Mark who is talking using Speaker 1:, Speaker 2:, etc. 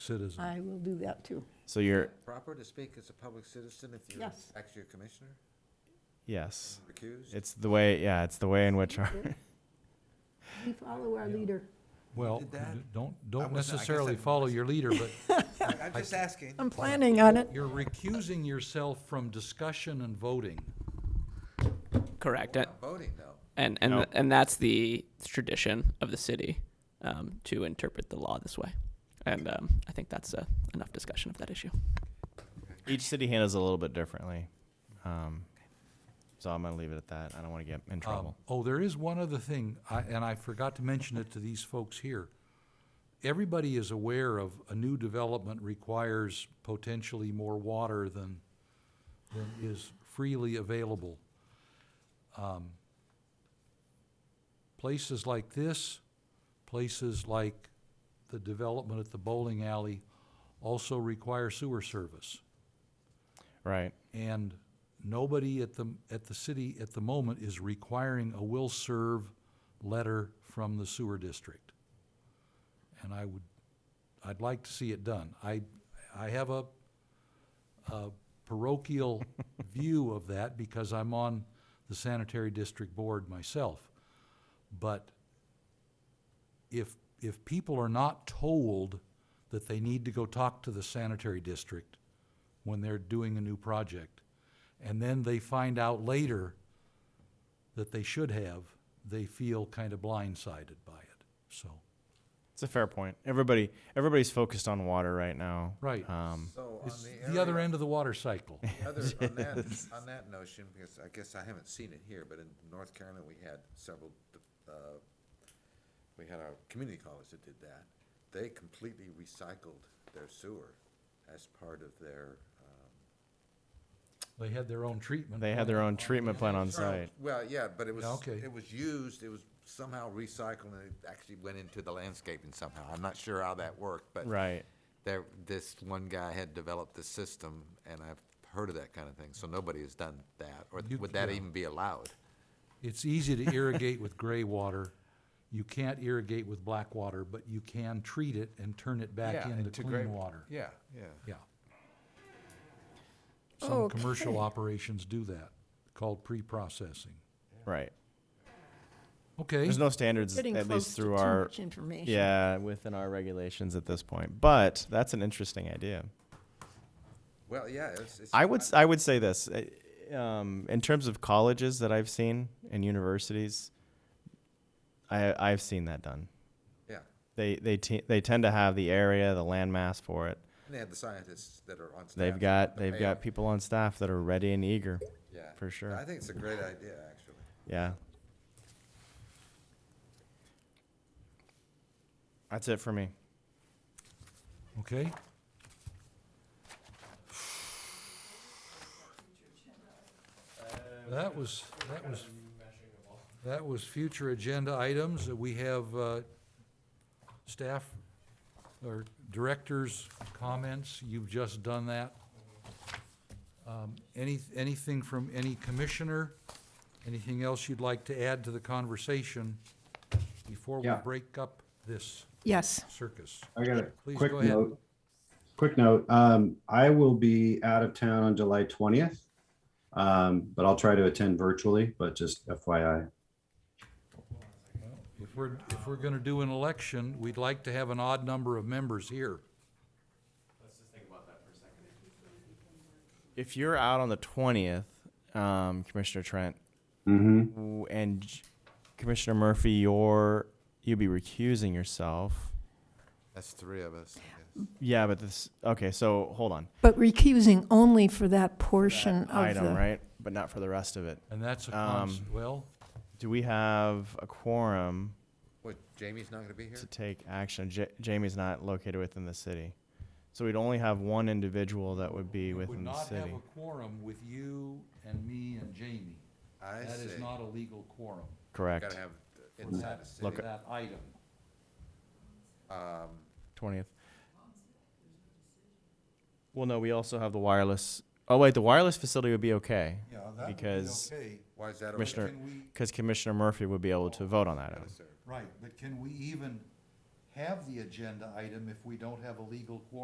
Speaker 1: citizen.
Speaker 2: I will do that too.
Speaker 3: So you're
Speaker 4: Proper to speak as a public citizen if you're
Speaker 2: Yes.
Speaker 4: actually a commissioner,
Speaker 3: yes.
Speaker 4: recused?
Speaker 3: It's the way yeah, it's the way in which our
Speaker 2: We follow our leader.
Speaker 1: Well,
Speaker 4: did that?
Speaker 1: d- don't,
Speaker 4: I
Speaker 1: don't
Speaker 4: wasn't- I guess I
Speaker 1: necessarily
Speaker 4: didn't
Speaker 1: follow your leader, but
Speaker 4: I- I'm just asking.
Speaker 2: I'm planning on it.
Speaker 1: you're recusing yourself from discussion and voting.
Speaker 5: Correct. And
Speaker 4: Not voting, though.
Speaker 5: and and,
Speaker 3: No.
Speaker 5: and that's the tradition of the city um, to interpret the law this way. And um, I think that's uh, enough discussion of that issue.
Speaker 3: each city handles it a little bit differently. Um, so I'm gonna leave it at that. I don't want to get in
Speaker 1: Um,
Speaker 3: trouble.
Speaker 1: Oh, there is one other thing, I- and I forgot to mention it to these folks here. Everybody is aware of a new development requires potentially more water than, than is freely available. Um, Places like this, places like the development at the bowling alley also require sewer service.
Speaker 3: right.
Speaker 1: And nobody at the, at the city at the moment is requiring a will serve letter from the sewer district. And I would, I'd like to see it done. I, I have a, a parochial view of that because I'm on the sanitary district board myself. But if, if people are not told that they need to go talk to the sanitary district when they're doing a new project, and then they find out later that they should have, they feel kind of blindsided by it, so,
Speaker 3: It's a fair point. Everybody everybody's focused on water right now.
Speaker 1: right.
Speaker 3: Um,
Speaker 4: So on
Speaker 1: It's
Speaker 4: the
Speaker 1: the other
Speaker 4: area-
Speaker 1: end of the water cycle.
Speaker 4: Other, on that, on that notion, because I guess I haven't seen it here, but in North Carolina, we had several, uh, we had our community college that did that. They completely recycled their sewer as part of their, um.
Speaker 1: They had their own treatment.
Speaker 3: they had their own treatment plant on site.
Speaker 4: Well, yeah, but it was,
Speaker 1: Okay.
Speaker 4: it was used, it was somehow recycled, and it actually went into the landscaping somehow. I'm not sure how that worked, but.
Speaker 3: Right.
Speaker 4: There, this one guy had developed the system, and I've heard of that kind of thing, so nobody has done that, or
Speaker 1: You-
Speaker 4: would that
Speaker 1: yeah.
Speaker 4: even be allowed?
Speaker 1: It's easy to irrigate with gray water. You can't irrigate with black water, but you can treat it and turn it back into clean water.
Speaker 4: Yeah, yeah.
Speaker 1: Yeah. Some commercial operations do that, called pre-processing.
Speaker 3: Right.
Speaker 1: Okay.
Speaker 3: There's no standards
Speaker 2: Getting
Speaker 3: at
Speaker 2: close
Speaker 3: least
Speaker 2: to
Speaker 3: through
Speaker 2: too
Speaker 3: our
Speaker 2: much information.
Speaker 3: yeah, within our regulations at this point. But that's an interesting idea.
Speaker 4: Well, yeah, it's, it's.
Speaker 3: I would s- I would say this uh, um, in terms of colleges that I've seen and universities. I I've seen that done.
Speaker 4: Yeah,
Speaker 3: They they te- they tend to have the area, the landmass for it.
Speaker 4: and they have the scientists that are on staff.
Speaker 3: They've got
Speaker 4: to
Speaker 3: they've
Speaker 4: pay
Speaker 3: got
Speaker 4: them.
Speaker 3: people on staff that are ready and eager.
Speaker 4: Yeah.
Speaker 3: for sure.
Speaker 4: I think it's a great idea, actually.
Speaker 3: Yeah. That's it for me.
Speaker 1: Okay. That was, that was, that was future agenda items. Uh, We have uh, staff or directors' comments. You've just done that. Um, Any, anything from any commissioner? Anything else you'd like to add to the conversation before we
Speaker 6: Yeah.
Speaker 1: break up this
Speaker 2: Yes.
Speaker 1: circus?
Speaker 6: I got a
Speaker 1: Please
Speaker 6: quick
Speaker 1: go ahead.
Speaker 6: note. Quick note, um, I will be out of town on July twentieth. Um, but I'll try to attend virtually, but just FYI.
Speaker 1: If we're, if we're gonna do an election, we'd like to have an odd number of members here.
Speaker 3: If you're out on the twentieth, um, Commissioner Trent
Speaker 6: Mm-hmm.
Speaker 3: w- and J- Commissioner Murphy, you're you'll be recusing yourself.
Speaker 4: That's three of us, I guess.
Speaker 3: Yeah, but this okay. So hold on.
Speaker 2: But recusing only for that portion of
Speaker 3: item,
Speaker 2: the,
Speaker 3: right? But not for the rest of it.
Speaker 1: And that's a
Speaker 3: Um,
Speaker 1: cons, well,
Speaker 3: Do we have a quorum
Speaker 4: What, Jamie's not gonna be here?
Speaker 3: to take action? Ja- Jamie's not located within the city. So we'd only have one individual that would be
Speaker 1: we would
Speaker 3: within the
Speaker 1: not have
Speaker 3: city.
Speaker 1: a quorum with you and me and Jamie.
Speaker 4: I
Speaker 1: That is
Speaker 4: see.
Speaker 1: not a legal quorum.
Speaker 3: Correct.
Speaker 4: Gotta have the
Speaker 1: for
Speaker 4: inside
Speaker 1: that-
Speaker 4: the
Speaker 1: for
Speaker 4: city.
Speaker 1: That item.
Speaker 4: Um,
Speaker 3: 20th. Well, no, we also have the wireless. Oh, wait, the wireless facility would be okay.
Speaker 7: Yeah, that would be
Speaker 3: Because-
Speaker 7: okay.
Speaker 4: why is that? okay?
Speaker 3: Commissioner,
Speaker 1: Can we-
Speaker 3: because Commissioner Murphy would be able to vote on that. item.
Speaker 4: Yes, sir.
Speaker 1: Right, but can we even have the agenda item if we don't have a legal quorum